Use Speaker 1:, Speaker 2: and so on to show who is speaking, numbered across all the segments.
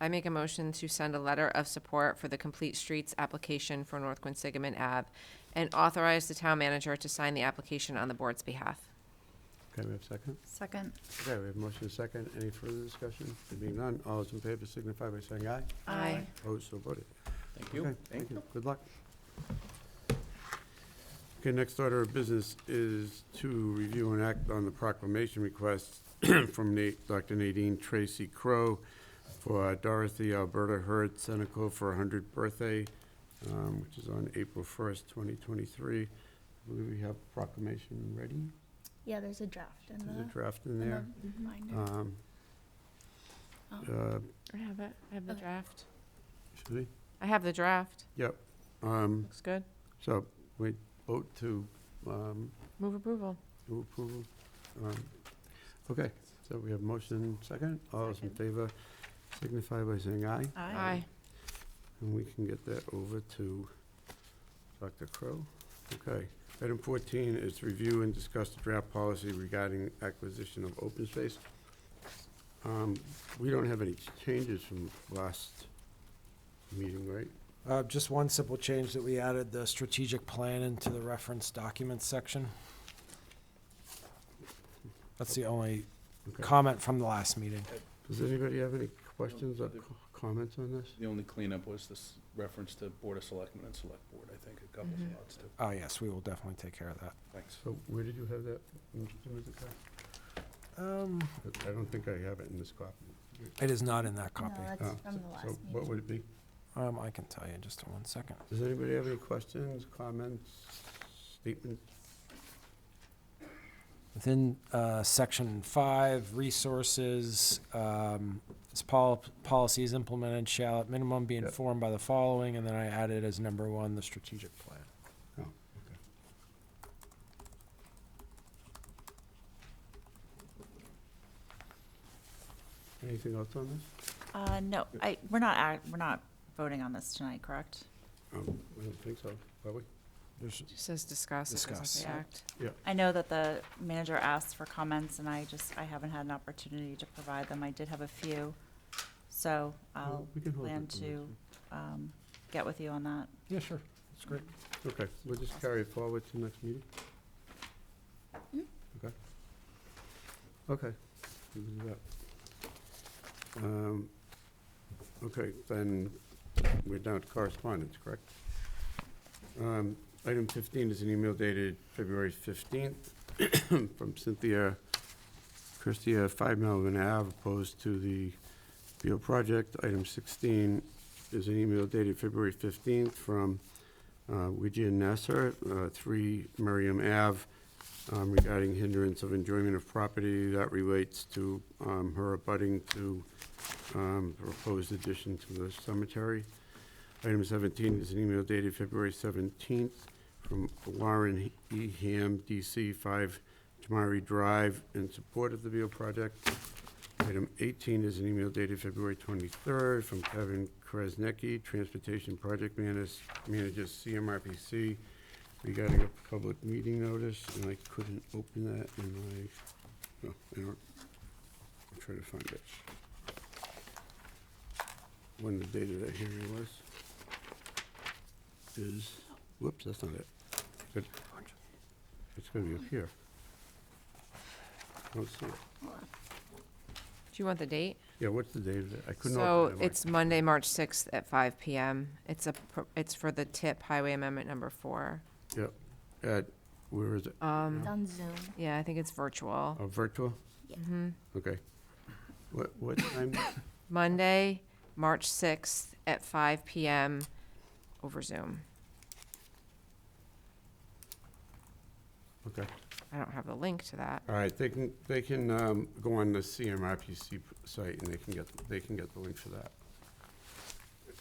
Speaker 1: I make a motion to send a letter of support for the Complete Streets application for North Quinsigamon Ave and authorize the town manager to sign the application on the board's behalf.
Speaker 2: Okay, we have a second?
Speaker 3: Second.
Speaker 2: Okay, we have a motion and a second. Any further discussion? There being none, all those in favor signify by saying aye.
Speaker 3: Aye.
Speaker 2: Opposed, so voted.
Speaker 4: Thank
Speaker 2: Okay,
Speaker 4: you.
Speaker 2: Thank you. Good luck. Okay, next order of business is to review and act on the proclamation request from Nate, Dr. Nadine Tracy Crow for Dorothy Alberta Hurd Seneca for her hundredth birthday, um, which is on April first, twenty twenty-three. I believe we have proclamation ready.
Speaker 3: Yeah, there's a draft in
Speaker 2: There's a
Speaker 3: the,
Speaker 2: draft in
Speaker 3: in
Speaker 2: there.
Speaker 3: the binder.
Speaker 2: Um,
Speaker 3: Oh.
Speaker 2: uh,
Speaker 1: I have it. I have
Speaker 3: the
Speaker 1: the
Speaker 3: Okay.
Speaker 1: draft.
Speaker 2: should we?
Speaker 1: I have the draft.
Speaker 2: Um,
Speaker 1: Looks good.
Speaker 2: so we vote to, um,
Speaker 1: Move approval.
Speaker 2: Move approval. Um, Okay, so we have motion second. All those in favor signify by saying aye.
Speaker 1: Aye.
Speaker 2: And we can get that over to Dr. Crow. Okay. Item 14 is to review and discuss the draft policy regarding acquisition of open space. Um, We don't have any changes from last meeting, right?
Speaker 5: Uh, Just one simple change that we added, the strategic plan into the reference documents section. That's the only
Speaker 2: Okay.
Speaker 5: comment from the last meeting.
Speaker 2: Does anybody have any questions or co- comments on this?
Speaker 4: The only cleanup was this reference to Board of Selectmen and Select Board, I think, a couple
Speaker 1: Mhm.
Speaker 4: spots too.
Speaker 5: Oh, yes, we will definitely take care of that.
Speaker 4: Thanks.
Speaker 2: So where did you have that? Mr. Mizikar?
Speaker 5: Um,
Speaker 2: But I don't think I have it in this copy.
Speaker 5: It is not in that
Speaker 3: No,
Speaker 5: copy.
Speaker 2: Oh,
Speaker 3: that's from
Speaker 2: so-
Speaker 3: the
Speaker 2: So
Speaker 3: last
Speaker 2: what
Speaker 3: meeting.
Speaker 2: would it be?
Speaker 5: Um, I can tell you, just in one second.
Speaker 2: Does anybody have any questions, comments, statements?
Speaker 5: Within uh, Section 5, resources, um, this pol- policy is implemented shall at minimum be
Speaker 2: Yeah.
Speaker 5: informed by the following, and then I added as number one, the strategic plan.
Speaker 2: Anything else on this?
Speaker 6: Uh, no, I, we're not, act- we're not voting on this tonight, correct?
Speaker 2: Um, I don't think so, are we?
Speaker 5: There's
Speaker 1: Just says discuss. It doesn't say
Speaker 5: Discuss.
Speaker 1: act.
Speaker 6: I know that the manager asked for comments and I just, I haven't had an opportunity to provide them. I did have a few. So I'll,
Speaker 2: We can hold it
Speaker 6: plan
Speaker 2: till next
Speaker 6: to-
Speaker 2: week.
Speaker 6: um, get with you on that.
Speaker 5: Yeah, sure. That's great.
Speaker 2: Okay, we'll just carry it forward to next meeting? Okay. Okay. we can do that. Um, Okay, then we're down to correspondence, correct? Um, Item 15 is an email dated February 15th from Cynthia Christia, 5 Melvin Ave, opposed to the Beal project. Item 16 is an email dated February 15th from uh, Wijia Nasser, uh, 3 Miriam Ave, um, regarding hindrance of enjoyment of property. That relates to um, her abutting to um, proposed addition to the cemetery. Item 17 is an email dated February 17th from Lauren E. Ham, D.C., 5 Tamari Drive, in support of the Beal project. Item 18 is an email dated February 23rd from Kevin Krasnecki, Transportation Project Manis- Manager, CMRPC, regarding a public meeting notice, and I couldn't open that in my, no, I don't, I'll try to find it. When the date of that hearing was, is, whoops, that's not it. Good. It's gonna be up here. I don't see it.
Speaker 1: Do you want the date?
Speaker 2: Yeah, what's the date of that? I couldn't
Speaker 1: So
Speaker 2: open that one.
Speaker 1: it's Monday, March sixth at five PM. It's a, pr- it's for the tip highway amendment number four.
Speaker 2: At, Uh, where is it?
Speaker 1: Um,
Speaker 3: It's on Zoom.
Speaker 1: yeah, I think it's virtual.
Speaker 2: Oh, virtual?
Speaker 1: hmm
Speaker 2: Okay. What, what time?
Speaker 1: Monday, March sixth at five PM over Zoom.
Speaker 2: Okay.
Speaker 1: I don't have the link to that.
Speaker 2: All right, they can, they can um, go on the CMRPC p- site and they can get, they can get the link for that.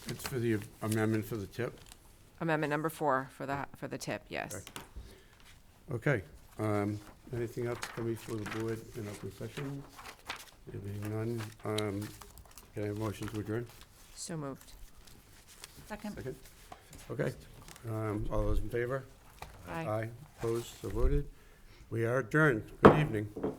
Speaker 2: It's for the amendment for the tip?
Speaker 1: Amendment number four for the, for the tip, yes.
Speaker 2: Okay. um, Anything else coming for the board in open session? There being none, um, can I have motion to adjourn?
Speaker 1: So moved.
Speaker 6: Second?
Speaker 2: Second? Okay. um, All those in favor?
Speaker 1: Aye.
Speaker 2: Aye, opposed, so voted. We are adjourned. Good evening.